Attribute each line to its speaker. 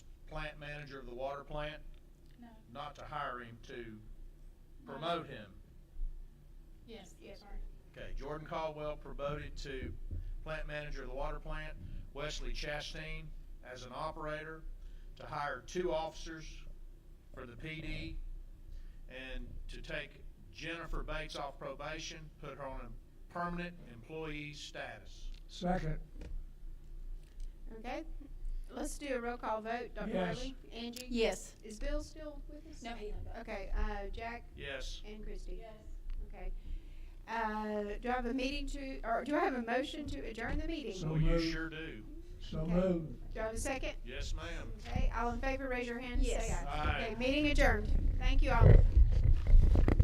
Speaker 1: plant manager of the water plant,
Speaker 2: No,
Speaker 1: not to hire him, to promote him.
Speaker 2: yes,
Speaker 3: Yes.
Speaker 2: sorry.
Speaker 1: Okay, Jordan Caldwell promoted to plant manager of the water plant, Wesley Chastain as an operator, to hire two officers for the PD, and to take Jennifer Bates off probation, put her on a permanent employee status.
Speaker 4: Second,
Speaker 3: Okay, let's do a roll call vote. Dr.
Speaker 4: Yes.
Speaker 3: Riley? Angie?
Speaker 5: Yes.
Speaker 3: Is Bill still with us?
Speaker 2: No, he left.
Speaker 3: Okay, uh, Jack
Speaker 1: Yes,
Speaker 3: and Christie.
Speaker 2: Yes.
Speaker 3: Okay. Uh, do I have a meeting to, or do I have a motion to adjourn the meeting?
Speaker 4: So
Speaker 1: well, you
Speaker 4: moved.
Speaker 1: sure do.
Speaker 4: so
Speaker 3: Okay.
Speaker 4: moved.
Speaker 3: Do I have a second?
Speaker 1: Yes, ma'am.
Speaker 3: Okay, all in favor, raise your hand. and
Speaker 5: Yes.
Speaker 3: Say aye.
Speaker 1: Aye.
Speaker 3: Okay, meeting adjourned. Thank you all.